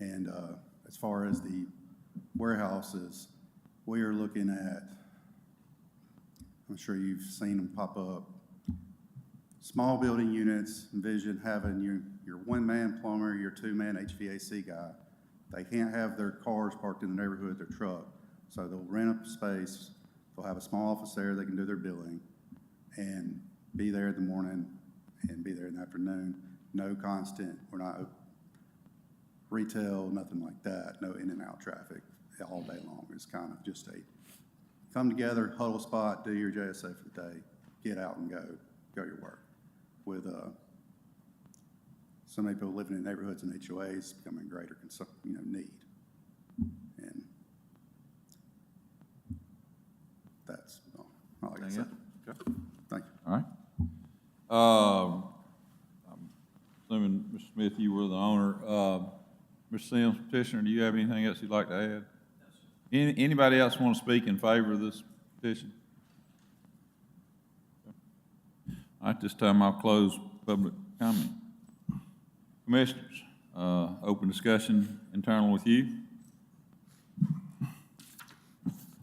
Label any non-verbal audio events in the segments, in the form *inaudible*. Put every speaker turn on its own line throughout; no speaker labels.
And uh, as far as the warehouses, we are looking at, I'm sure you've seen them pop up, small building units, envision having your, your one-man plumber, your two-man HVAC guy. They can't have their cars parked in the neighborhood, their truck, so they'll rent a space, they'll have a small office there, they can do their billing, and be there in the morning and be there in the afternoon. No constant, we're not retail, nothing like that, no in and out traffic all day long. It's kind of just a come together, huddle spot, do your JSA for the day, get out and go, go your work. With uh, so many people living in neighborhoods and HOAs becoming a greater, concern, you know, need. And that's all, all I can say.
Thank you. Okay.
Thank you.
All right. Um, I'm Assuming, Mr. Smith, you were the owner. Uh, Mr. Sims, petitioner, do you have anything else you'd like to add? Any Anybody else want to speak in favor of this petition? All right, this time I'll close public comment. Commissioners, uh, open discussion internal with you.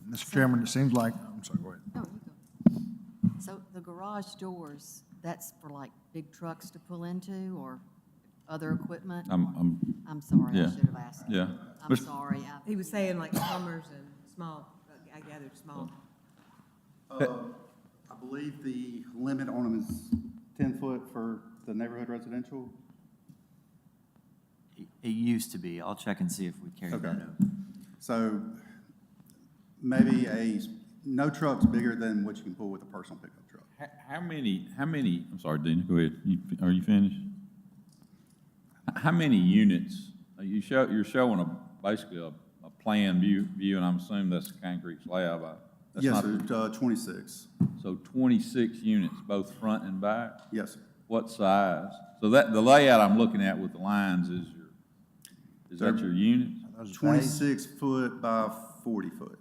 Mr. Chairman, it seems like, I'm sorry, go ahead.
Oh, you go. So the garage doors, that's for like big trucks to pull into or other equipment?
I'm, I'm,
I'm sorry, I
Um, yeah.
should have asked.
yeah.
I'm
Mr.
sorry. I-
He was saying like plumbers and small, I gathered small.
I believe the limit on them is ten foot for the neighborhood residential.
It it used to be. I'll check and see if we carry
Okay.
that over.
So maybe a, no truck's bigger than what you can pull with a personal pickup truck.
How, how many, how many, I'm sorry, Dina, go ahead. You, are you finished? H- How many units, uh, you show, you're showing a, basically a, a plan view, view, and I'm assuming that's a concrete slab. I- that's
Yes,
not-
sir, uh, twenty-six.
So twenty-six units, both front and back?
Yes, sir.
What size? So that, the layout I'm looking at with the lines is your, is that your units?
Twenty-six foot by forty foot.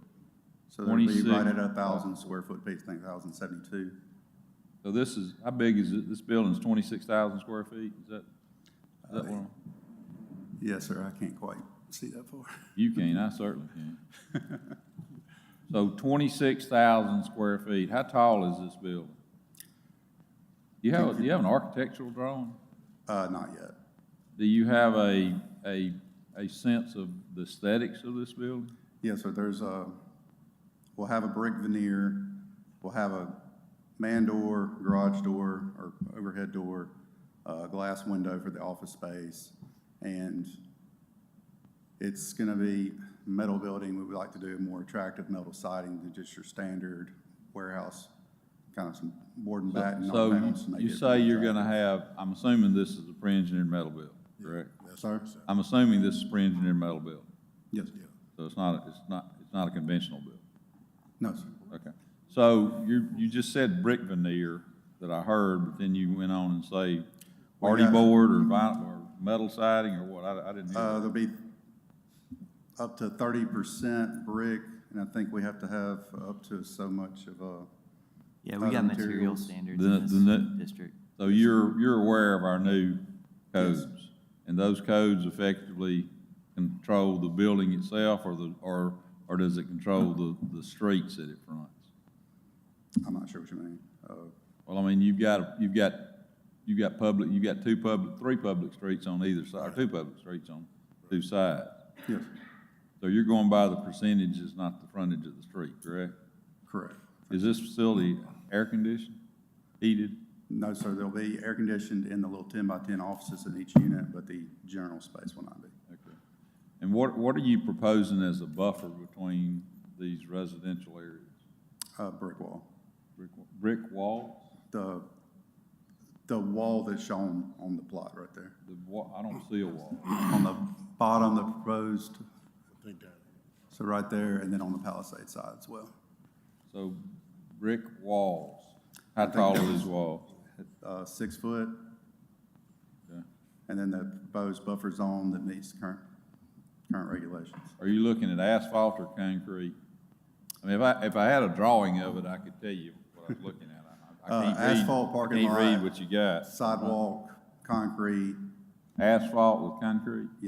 So that'd be right at
26.
a thousand square foot piece, I think thousand seventy-two.
So this is, how big is it? This building's twenty-six thousand square feet? Is that, is
Uh,
that one?
Yes, sir, I can't quite see that far.
You can, I certainly can. *laughs* So twenty-six thousand square feet, how tall is this building? Do you have, do you have an architectural drawing?
Uh, not yet.
Do you have a, a, a sense of the aesthetics of this building?
Yes, sir, there's a, we'll have a brick veneer, we'll have a man door, garage door, or overhead door, a glass window for the office space, and it's gonna be metal building, we would like to do more attractive metal siding than just your standard warehouse, kind of some board and batten. all
So
panels to
you-
make
you
it
say you're
attractive.
gonna have, I'm assuming this is a pre-engineered metal building, correct?
Sir?
I'm assuming this is pre-engineered metal building,
Yes.
so it's not, it's not, it's not a conventional building.
No, sir.
Okay. So you, you just said brick veneer that I heard, but then you went on and say
We
party
got-
board or vinyl or metal siding or what? I, I didn't hear.
Uh,
that.
there'll be up to thirty percent brick, and I think we have to have up to so much of a,
Yeah, we
Other
got material
materials.
standards
The-
in
the ne-
this district.
So you're, you're aware of our new
Yes.
codes? And those codes effectively control the building itself or the, or, or does it control the, the streets that it fronts?
I'm not sure what you mean. Uh,
Well, I mean, you've got, you've got, you've got public, you've got two public, three public streets on either side, or two public streets on two sides.
yes,
So you're going by the percentages, not the frontage of the street, correct?
correct.
Is this facility air-conditioned, heated?
No, sir, there'll be air conditioned in the little ten by ten offices in each unit, but the general space will not be.
Okay. And what, what are you proposing as a buffer between these residential areas?
Uh, brick wall.
Brick, wa- brick walls?
The, the wall that's shown on the plot right there,
The wa, I don't see a wall.
on the bottom, the proposed. So right there, and then on the Palisade side as well.
So brick walls. How tall are these walls?
Uh, six foot,
Okay.
And then the proposed buffer zone that meets current, current regulations.
Are you looking at asphalt or concrete? I mean, if I, if I had a drawing of it, I could tell you what I was looking at. I- I- I
Uh,
can't read-
asphalt parking
Can't read
lot.
what you got.
Sidewalk, concrete,
Asphalt with concrete?